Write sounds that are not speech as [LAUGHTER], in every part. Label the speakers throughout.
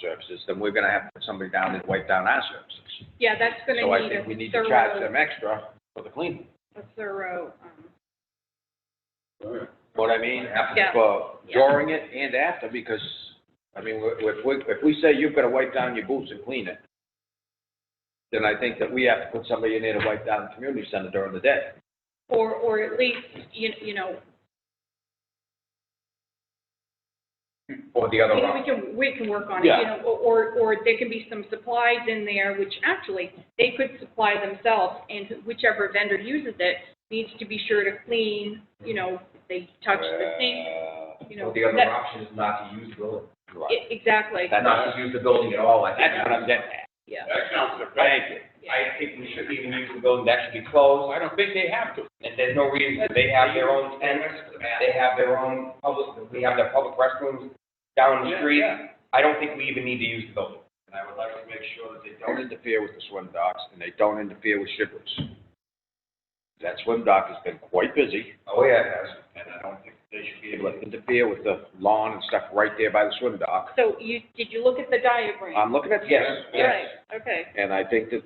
Speaker 1: services, then we're gonna have to put somebody down and wipe down our services.
Speaker 2: Yeah, that's gonna
Speaker 1: So I
Speaker 2: need
Speaker 1: think we
Speaker 2: a
Speaker 1: need to charge
Speaker 2: thorough,
Speaker 1: them extra for the cleaning.
Speaker 2: a thorough, um,
Speaker 1: Know what I mean? After-
Speaker 2: Yeah.
Speaker 1: For
Speaker 2: Yeah.
Speaker 1: during it and after, because, I mean, we- if we, if we say you've gotta wipe down your boots and clean it, then I think that we have to put somebody in there to wipe down the community center during the day.
Speaker 2: or, or at least, you, you know,
Speaker 1: Or the other
Speaker 2: I mean,
Speaker 1: route.
Speaker 2: we can, we can work on it,
Speaker 1: Yeah.
Speaker 2: you know, or, or there can be some supplies in there, which actually, they could supply themselves, and whichever vendor uses it needs to be sure to clean, you know, if they touch
Speaker 1: Uh,
Speaker 2: the sink, you know.
Speaker 3: Well, the other
Speaker 2: that-
Speaker 3: option is not to use the building,
Speaker 2: e- Exactly,
Speaker 1: That's
Speaker 3: not to use the building at all, I think.
Speaker 1: That's what I'm getting at.
Speaker 2: yeah.
Speaker 4: That sounds effective.
Speaker 1: Thank you.
Speaker 3: I think we should even use the building, that should be closed,
Speaker 4: I don't think they have to.
Speaker 3: and there's no reason, they have their own tents, they have their own public, we have their public restrooms down the
Speaker 4: Yeah,
Speaker 3: street.
Speaker 4: yeah.
Speaker 3: I don't think we even need to use the building.
Speaker 4: And I would like to make sure that they
Speaker 1: Don't interfere with the swim docks, and they don't interfere with shippers. That swim dock has been quite busy.
Speaker 3: [LAUGHS] Oh, yeah, it has.
Speaker 4: and I don't think they should be
Speaker 1: People that interfere with the lawn and stuff right there by the swim dock.
Speaker 2: So you, did you look at the diagram?
Speaker 1: I'm looking at, Um, yes,
Speaker 3: Yes,
Speaker 2: Right,
Speaker 3: yes.
Speaker 2: Okay,
Speaker 1: and I think that,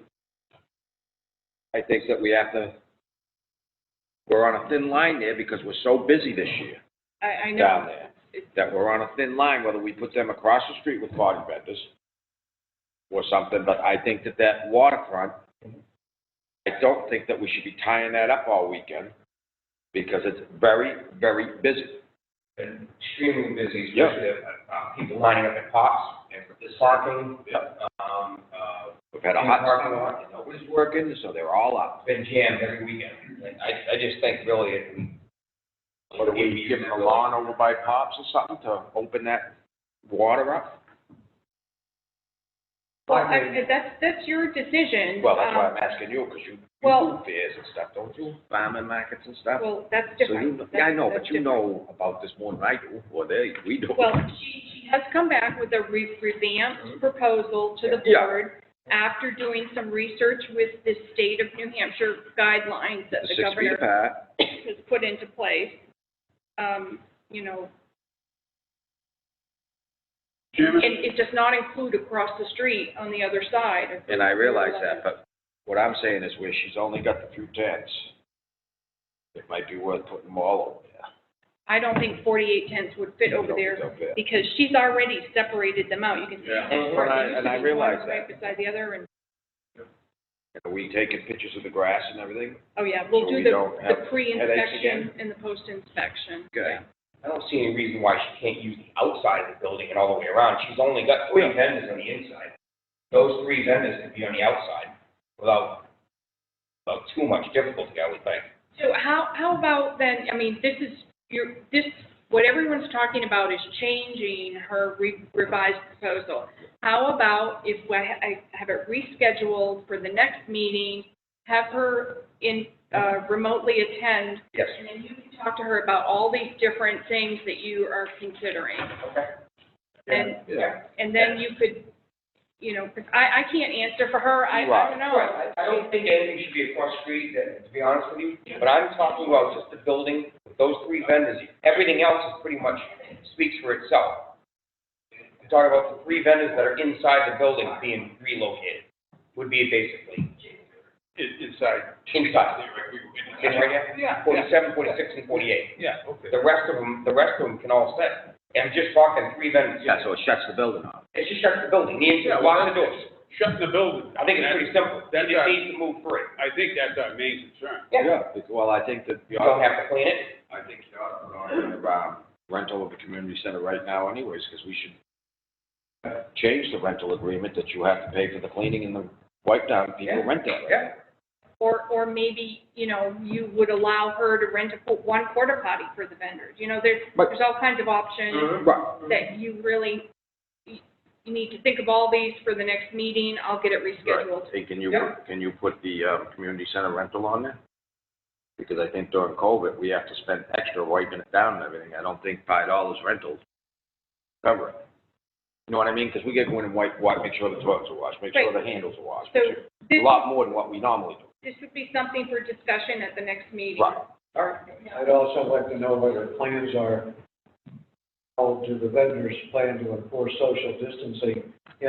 Speaker 1: I think that we have to, we're on a thin line there because we're so busy this year
Speaker 2: I, I know.
Speaker 1: down there, that we're on a thin line, whether we put them across the street with party vendors or something, but I think that that waterfront, I don't think that we should be tying that up all weekend because it's very, very busy.
Speaker 3: Been extremely busy,
Speaker 1: Yeah.
Speaker 3: especially, uh, uh, people lining up at pops, and for this parking, um, uh,
Speaker 1: We've had a
Speaker 3: in the
Speaker 1: hot
Speaker 3: parking
Speaker 1: summer,
Speaker 3: lot, you know, we
Speaker 1: nobody's working, so they're all out.
Speaker 3: been jammed every weekend. And I, I just think really it.
Speaker 1: What, are we giving a lawn over by Pops or something to open that water up?
Speaker 2: Well, I, that's, that's your decision.
Speaker 1: Well, that's why
Speaker 2: um,
Speaker 1: I'm asking you, because you, you
Speaker 2: well-
Speaker 1: do fairs and stuff, don't you? Farming markets and stuff?
Speaker 2: Well, that's
Speaker 1: So
Speaker 2: different.
Speaker 1: you, yeah,
Speaker 2: That's-
Speaker 1: I know, but
Speaker 2: that's
Speaker 1: you
Speaker 2: different.
Speaker 1: know about this more than I do, or they, we do.
Speaker 2: Well, she, she has come back with a re- revamped proposal to the
Speaker 1: Mm-hmm. Yeah.
Speaker 2: board after doing some research with the state of New Hampshire guidelines that the
Speaker 1: Six feet
Speaker 2: governor
Speaker 1: apart,
Speaker 2: has put into place. Um, you know,
Speaker 4: Chairman,
Speaker 2: it, it does not include across the street on the other side. of-
Speaker 1: and I realize that, but what I'm saying is where she's only got the few tents, it might be worth putting them all over there.
Speaker 2: I don't think forty-eight tents would fit over there
Speaker 1: Over there.
Speaker 2: because she's already separated them out. You can see.
Speaker 4: Yeah.
Speaker 3: And-
Speaker 1: and I- and I
Speaker 2: One
Speaker 1: realize
Speaker 2: Right beside the other and,
Speaker 1: Are we taking pictures of the grass and everything?
Speaker 2: oh yeah, we'll
Speaker 1: So
Speaker 2: do
Speaker 1: we
Speaker 2: the,
Speaker 1: don't have
Speaker 2: the
Speaker 1: headaches
Speaker 2: pre-inspection
Speaker 1: again?
Speaker 2: and the post-inspection.
Speaker 1: Okay.
Speaker 2: Yeah.
Speaker 3: I don't see any reason why she can't use the outside of the building and all the way around. She's only got three vendors on the inside. Those three vendors could be on the outside without, without too much difficulty, I would think.
Speaker 2: So how, how about then, I mean, this is, your, this, what everyone's talking about is changing her re- revised proposal. How about if I I have it rescheduled for the next meeting, have her in, uh, remotely attend,
Speaker 3: Yes.
Speaker 2: and then you can talk to her about all these different things that you are considering.
Speaker 3: Okay.
Speaker 2: And,
Speaker 1: Yeah.
Speaker 2: and then you could, you know, 'cause I, I can't answer for her, I, I
Speaker 1: Right,
Speaker 2: don't
Speaker 3: Right,
Speaker 2: know.
Speaker 3: I, I don't think anything should be across the street, uh, to be honest with you, but I'm talking about just the building, with those three vendors. Everything else is pretty much speaks for itself. I'm talking about the three vendors that are inside the building being relocated, would be basically
Speaker 4: in- inside.
Speaker 3: inside. This right here?
Speaker 4: Yeah, yeah,
Speaker 3: Forty-seven, forty-six, and forty-eight.
Speaker 4: yeah, okay.
Speaker 3: The rest of them, the rest of them can all sit. And I'm just talking three vendors.
Speaker 1: Yeah, so it shuts the building off.
Speaker 3: It's just shut the building, the
Speaker 4: Yeah,
Speaker 3: inside,
Speaker 4: well,
Speaker 3: lock the doors.
Speaker 4: Shutting the building.
Speaker 3: I think it's pretty simple. You
Speaker 4: That's
Speaker 3: just
Speaker 4: our-
Speaker 3: need to move through it.
Speaker 4: I think that's our main concern.
Speaker 3: Yeah.
Speaker 1: bec- Well, I think that
Speaker 3: You
Speaker 1: you ought
Speaker 3: don't have to clean it.
Speaker 4: I think you ought to put on
Speaker 1: to have, um, rental of the community center right now anyways, because we should uh, change the rental agreement that you have to pay for the cleaning and the wipe down, people
Speaker 3: Yeah.
Speaker 1: rent that.
Speaker 3: Yeah.
Speaker 2: Or, or maybe, you know, you would allow her to rent a, one quarter potty for the vendors. You know, there's,
Speaker 1: But-
Speaker 2: there's all kinds of options
Speaker 3: Mm-hmm.
Speaker 4: Mm-hmm.
Speaker 1: Right.
Speaker 2: that you really, you you need to think of all these for the next meeting. I'll get it rescheduled.
Speaker 1: Hey, can you,
Speaker 3: Yeah.
Speaker 1: can you put the, um, community center rental on there? Because I think during COVID, we have to spend extra wiping it down and everything. I don't think five dollars rental cover it. You know what I mean? Because we get going and wipe, wipe, make sure the toilets are washed, make sure the handles are washed.
Speaker 2: So
Speaker 1: make sure-
Speaker 2: this,
Speaker 1: A lot more than what we normally do.
Speaker 2: this would be something for discussion at the next meeting.
Speaker 1: Right.
Speaker 3: All right.
Speaker 5: I'd also like to know what your plans are, how do the vendors plan to enforce social distancing